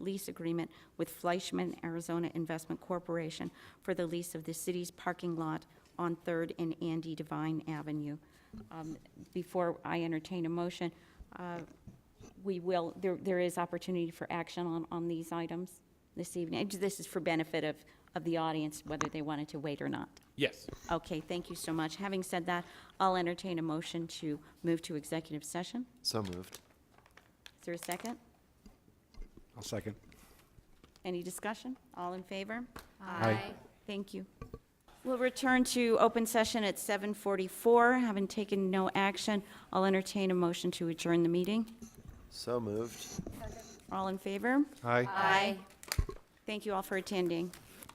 lease agreement with Fleischman Arizona Investment Corporation for the lease of the city's parking lot on Third and Andy Devine Avenue. Um, Before I entertain a motion, uh, we will, there, there is opportunity for action on, on these items this evening. This is for benefit of, of the audience, whether they wanted to wait or not. Yes. Okay, thank you so much. Having said that, I'll entertain a motion to move to executive session. So moved. Is there a second? I'll second. Any discussion? All in favor? Aye. Thank you. We'll return to open session at 7:44. Having taken no action, I'll entertain a motion to adjourn the meeting. So moved. All in favor? Aye. Aye. Thank you all for attending.